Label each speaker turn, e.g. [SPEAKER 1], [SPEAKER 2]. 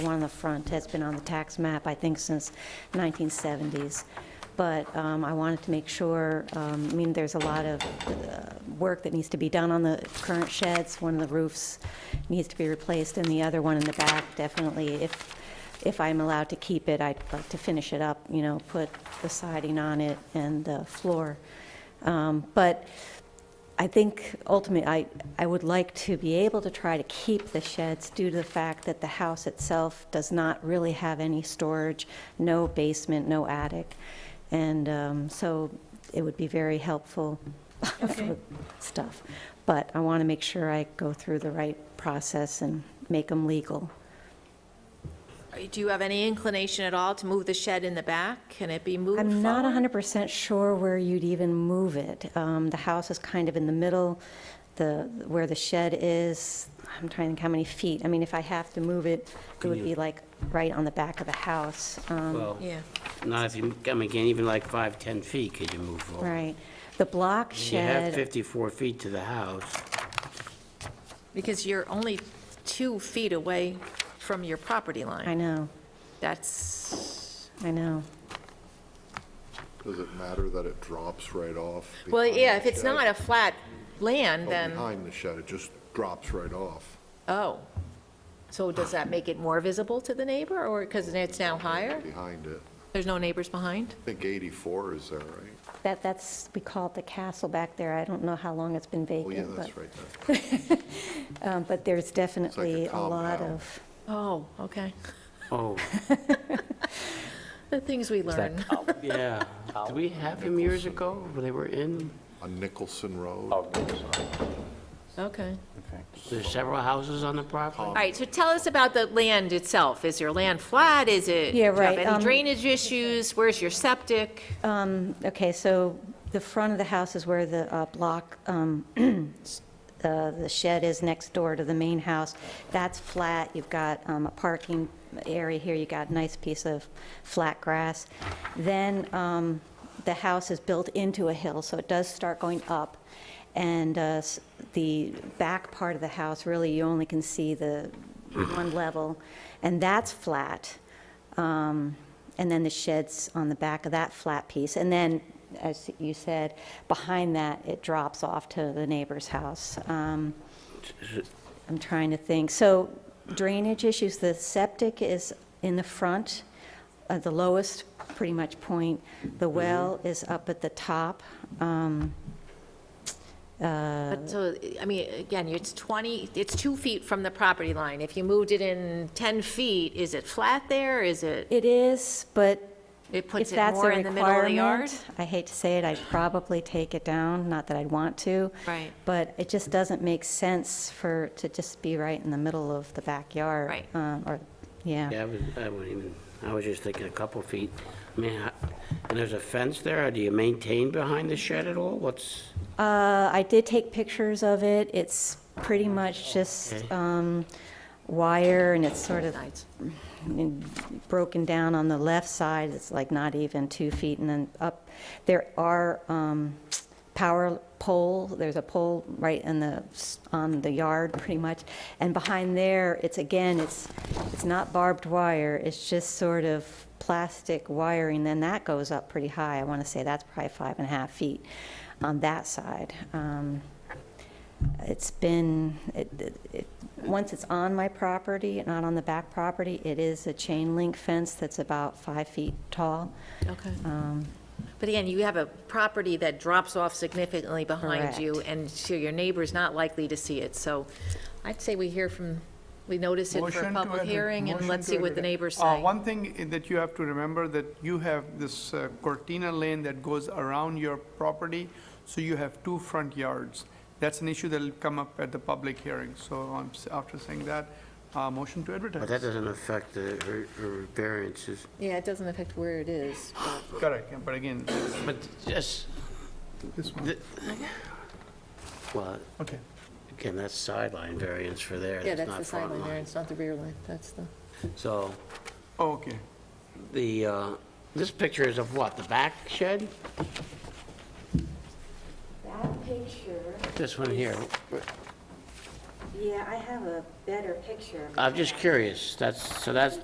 [SPEAKER 1] one on the front has been on the tax map, I think, since 1970s. But um, I wanted to make sure, um, I mean, there's a lot of uh, work that needs to be done on the current sheds. One of the roofs needs to be replaced, and the other one in the back, definitely, if, if I'm allowed to keep it, I'd like to finish it up, you know, put the siding on it and the floor. Um, But I think ultimately, I, I would like to be able to try to keep the sheds due to the fact that the house itself does not really have any storage, no basement, no attic. And um, so it would be very helpful
[SPEAKER 2] Okay.
[SPEAKER 1] for stuff. But I want to make sure I go through the right process and make them legal.
[SPEAKER 2] Do you have any inclination at all to move the shed in the back? Can it be moved forward?
[SPEAKER 1] I'm not 100% sure where you'd even move it. Um, The house is kind of in the middle, the, where the shed is, I'm trying to think how many feet. I mean, if I have to move it, it
[SPEAKER 3] Can
[SPEAKER 1] would
[SPEAKER 3] you-
[SPEAKER 1] be like right on the back of the house. Um,
[SPEAKER 3] Well,
[SPEAKER 2] Yeah,
[SPEAKER 3] not if you, I mean, again, even like five, 10 feet, could you move over?
[SPEAKER 1] Right. The block
[SPEAKER 3] You have
[SPEAKER 1] shed,
[SPEAKER 3] 54 feet to the house.
[SPEAKER 2] because you're only two feet away from your property
[SPEAKER 1] I
[SPEAKER 2] line.
[SPEAKER 1] know,
[SPEAKER 2] That's,
[SPEAKER 1] I know.
[SPEAKER 4] Does it matter that it drops right off?
[SPEAKER 2] well,
[SPEAKER 4] behind
[SPEAKER 2] yeah, if
[SPEAKER 4] the
[SPEAKER 2] it's
[SPEAKER 4] shed?
[SPEAKER 2] not a flat land,
[SPEAKER 4] Oh,
[SPEAKER 2] then,
[SPEAKER 4] Behind the shed, it just drops right off.
[SPEAKER 2] oh. So does that make it more visible to the neighbor, or, because it's now higher?
[SPEAKER 4] Behind it.
[SPEAKER 2] There's no neighbors behind?
[SPEAKER 4] I think 84 is there, right?
[SPEAKER 1] That, that's, we call it the castle back there. I don't know how long it's been
[SPEAKER 4] Oh, yeah,
[SPEAKER 1] vacant, but,
[SPEAKER 4] that's right. there.
[SPEAKER 1] um, but there's definitely a lot
[SPEAKER 4] compound.
[SPEAKER 1] of,
[SPEAKER 2] Oh, okay.
[SPEAKER 3] Oh,
[SPEAKER 2] The things we learn.
[SPEAKER 3] yeah. Did we have them years ago when they were in?
[SPEAKER 4] On Nicholson Road.
[SPEAKER 5] Oh, sorry.
[SPEAKER 2] Okay.
[SPEAKER 3] There's several houses on the property?
[SPEAKER 2] All right, so tell us about the land itself. Is your land flat? Is it?
[SPEAKER 1] Yeah,
[SPEAKER 2] do you have
[SPEAKER 1] right,
[SPEAKER 2] Any
[SPEAKER 1] um,
[SPEAKER 2] drainage issues? Where's your septic?
[SPEAKER 1] Um, Okay, so the front of the house is where the uh, block, um, s- uh, the shed is next door to the main house. That's flat, you've got um, a parking area here, you've got a nice piece of flat grass. Then um, the house is built into a hill, so it does start going up. And uh, s- the back part of the house, really, you only can see the one level, and that's flat. Um, And then the sheds on the back of that flat piece. And then, as you said, behind that, it drops off to the neighbor's house. Um, I'm trying to think. So drainage issues, the septic is in the front, uh, the lowest pretty much point. The well is up at the top. Um,
[SPEAKER 2] But so, I mean, again, it's 20, it's two feet from the property line. If you moved it in 10 feet, is it flat there? Is it,
[SPEAKER 1] It is, but
[SPEAKER 2] it
[SPEAKER 1] if
[SPEAKER 2] puts it
[SPEAKER 1] that's a
[SPEAKER 2] more in the middle of the yard?
[SPEAKER 1] requirement, I hate to say it, I'd probably take it down, not that I'd want to.
[SPEAKER 2] Right.
[SPEAKER 1] But it just doesn't make sense for, to just be right in the middle of the backyard.
[SPEAKER 2] Right.
[SPEAKER 1] um, Or,
[SPEAKER 3] Yeah, I was, I wouldn't even, I was just thinking a couple feet. I mean, I- and there's a fence there, do you maintain behind the shed at all? What's,
[SPEAKER 1] Uh, I did take pictures of it. It's pretty much just
[SPEAKER 3] Okay.
[SPEAKER 1] um, wire, and it's sort of
[SPEAKER 2] Sides.
[SPEAKER 1] in- broken down on the left side. It's like not even two feet, and then up. There are um, power pole, there's a pole right in the, s- on the yard, pretty much. And behind there, it's again, it's, it's not barbed wire, it's just sort of plastic wiring, then that goes up pretty high. I want to say that's probably five and a half feet on that side. Um, It's been, it, it- it, once it's on my property, not on the back property, it is a chain link fence that's about five feet tall.
[SPEAKER 2] Okay. But again, you have a property that drops off significantly behind you,
[SPEAKER 1] Correct.
[SPEAKER 2] and so your neighbor's not likely to see it. So I'd say we hear from, we notice it for
[SPEAKER 6] Motion
[SPEAKER 2] a
[SPEAKER 6] to
[SPEAKER 2] public
[SPEAKER 6] enter-
[SPEAKER 2] hearing, and
[SPEAKER 6] motion
[SPEAKER 2] let's
[SPEAKER 6] to
[SPEAKER 2] see what
[SPEAKER 6] enter-
[SPEAKER 2] the neighbors
[SPEAKER 6] Uh,
[SPEAKER 2] say.
[SPEAKER 6] One thing i- that you have to remember, that you have this uh, Cortina lane that goes around your property, so you have two front yards. That's an issue that'll come up at the public hearing. So um, s- after saying that, uh, motion to
[SPEAKER 3] but that
[SPEAKER 6] advertise.
[SPEAKER 3] doesn't affect the, her- her variances.
[SPEAKER 2] Yeah, it doesn't affect where it is.
[SPEAKER 6] Correct, yeah, but again,
[SPEAKER 3] But just,
[SPEAKER 6] this one,
[SPEAKER 3] the- well,
[SPEAKER 6] okay.
[SPEAKER 3] again, that's sideline variance for there,
[SPEAKER 2] Yeah,
[SPEAKER 3] that's
[SPEAKER 2] that's
[SPEAKER 3] not
[SPEAKER 2] the
[SPEAKER 3] front
[SPEAKER 2] sideline there,
[SPEAKER 3] line.
[SPEAKER 2] it's not the rear line, that's the.
[SPEAKER 3] So
[SPEAKER 6] Oh, Okay.
[SPEAKER 3] the, uh, this picture is of what, the back shed?
[SPEAKER 1] That picture,
[SPEAKER 3] This one here.
[SPEAKER 1] yeah, I have a better picture.
[SPEAKER 3] I'm just curious, that's, so that's